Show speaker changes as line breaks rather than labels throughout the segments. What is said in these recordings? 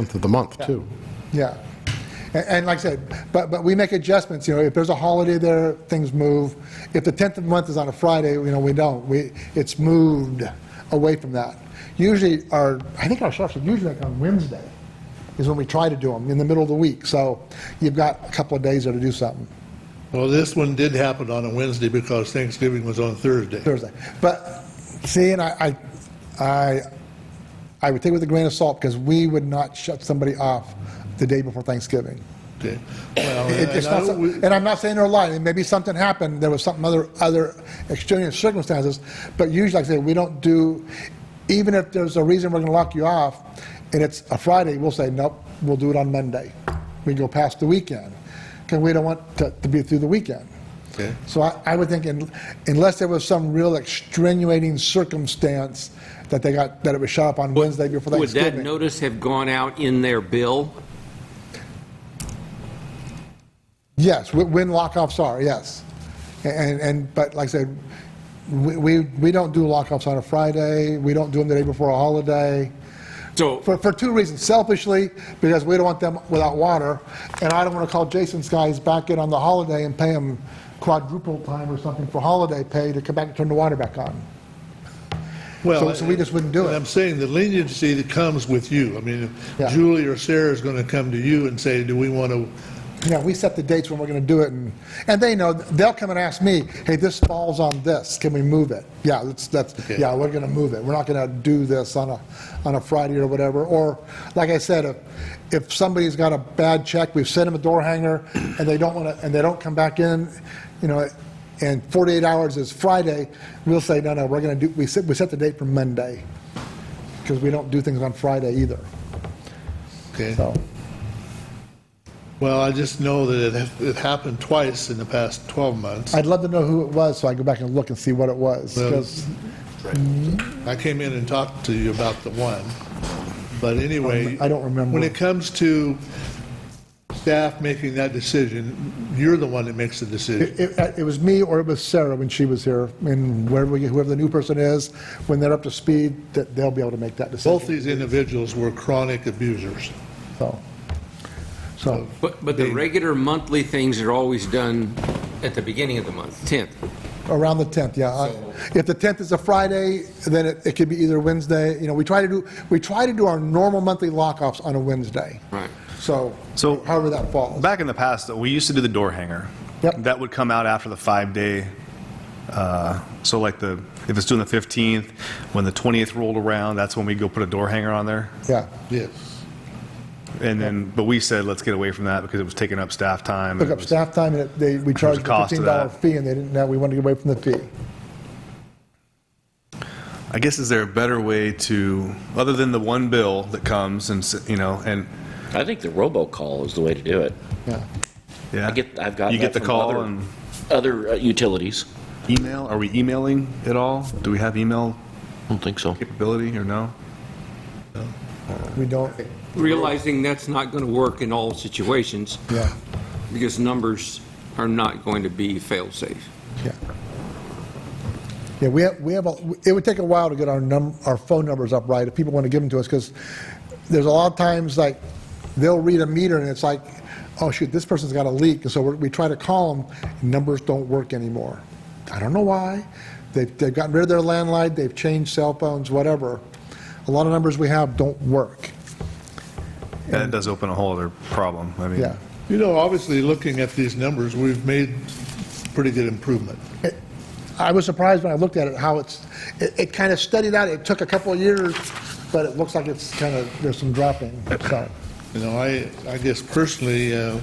Month of the month, too.
Yeah. And- And like I said, but, but we make adjustments, you know, if there's a holiday there, things move. If the 10th of the month is on a Friday, you know, we don't, we, it's moved away from that. Usually our, I think our sheriffs are usually like on Wednesday is when we try to do them, in the middle of the week. So you've got a couple of days there to do something,
Well, this one did happen on a Wednesday because Thanksgiving was on Thursday.
Thursday. But, see, and I, I, I I would take it with a grain of salt because we would not shut somebody off the day before Thanksgiving.
Okay. Well,
It-
and
it's
I
not
know
some-
we-
And I'm not saying they're lying, maybe something happened, there was something other, other extraneous circumstances, but usually, like I say, we don't do, even if there's a reason we're gonna lock you off, and it's a Friday, we'll say, nope, we'll do it on Monday. We go past the weekend, because we don't want to to be through the weekend.
Okay.
So I, I would think un- unless there was some real extenuating circumstance that they got, that it was shot up on Wednesday before
Would that
Thanksgiving.
notice have gone out in their bill?
Yes, wh- when lockoffs are, yes. And, and, but like I said, we, we we don't do lockoffs on a Friday, we don't do them the day before a holiday,
So,
for, for two reasons. Selfishly, because we don't want them without water, and I don't want to call Jason's guys back in on the holiday and pay them quadruple time or something for holiday pay to come back and turn the water back on.
Well,
so- so we just wouldn't do
and
it.
I'm saying the leniency that comes with you. I mean,
Yeah.
Julie or Sarah is going to come to you and say, do we want to,
Yeah, we set the dates when we're going to do it, and, and they know, they'll come and ask me, hey, this falls on this, can we move it? Yeah, that's, that's,
Okay.
yeah, we're going to move it, we're not going to do this on a, on a Friday or whatever, or, like I said, if, if somebody's got a bad check, we've sent them a door hanger, and they don't want to, and they don't come back in, you know, and 48 hours is Friday, we'll say, no, no, we're going to do, we set, we set the date for Monday, because we don't do things on Friday either,
okay?
so,
Well, I just know that it, it happened twice in the past 12 months.
I'd love to know who it was, so I go back and look and see what it was,
Well,
'cause-
I came in and talked to you about the one, but anyway.
I don't remember.
When it comes to staff making that decision, you're the one that makes the decision.
It, uh, it- it was me or it was Sarah when she was here, and wherever, we- whoever the new person is, when they're up to speed, that they'll be able to make that
Both
decision.
these individuals were chronic abusers.
So, so,
but, but the regular monthly things are always done at the beginning of the month, 10th.
around the 10th, yeah. I- If the 10th is a Friday, then it, it could be either Wednesday, you know, we try to do, we try to do our normal monthly lockoffs on a Wednesday.
Right.
So,
So-
however that falls.
Back in the past, though, we used to do the door hanger.
Yep.
That would come out after the five-day, uh, so like the, if it's doing the 15th, when the 20th rolled around, that's when we go put a door hanger on there.
Yeah,
Yes.
And then, but we said, let's get away from that because it was taking up staff time. and
took
it
up
was-
staff time, and it- they, we charged a
cost to
$15
that.
fee, and they didn't, know we wanted to get away from the fee.
I guess, is there a better way to, other than the one bill that comes and, s- you know, and,
I think the robocall is the way to do it.
Yeah.
yeah.
I get, I've gotten
You get the
that from
call
other-
and
Other uh, utilities.
email? Are we emailing at all? Do we have email
I don't think so.
capability or no?
We don't,
Realizing that's not going to work in all situations
yeah,
because numbers are not going to be fail-safe.
yeah. Yeah, we have, we have, a- it would take a while to get our num, our phone numbers up right, if people want to give them to us, because there's a lot of times, like, they'll read a meter, and it's like, oh, shoot, this person's got a leak, and so we're- we try to call them, numbers don't work anymore. I don't know why, they've, they've gotten rid of their landline, they've changed cell phones, whatever. A lot of numbers we have don't work,
That does open a whole other problem. I mean,
yeah.
You know, obviously, looking at these numbers, we've made pretty good improvement.
I was surprised when I looked at it, how it's, it, it kind of studied out, it took a couple of years, but it looks like it's kind of, there's some dropping, so.
You know, I, I guess personally, uh,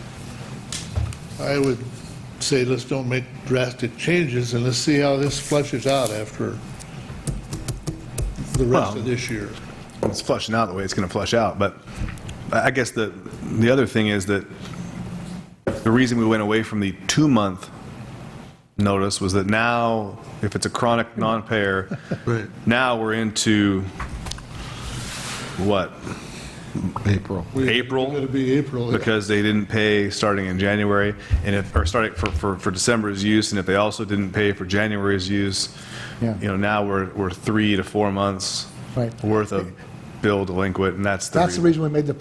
I would say let's don't make drastic changes and let's see how this flushes out after the rest
Well-
of this year.
it's flushing out the way it's going to flush out. But I I guess the, the other thing is that the reason we went away from the two-month notice was that now, if it's a chronic non-payer,
Right.
now we're into what?
April.
April?
It'll be April.
Because they didn't pay starting in January, and if, or starting for, for, for December's use, and if they also didn't pay for January's use,
Yeah.
you know, now we're, we're three to four months
Right.
worth of bill delinquent, and that's the
That's the reason we made the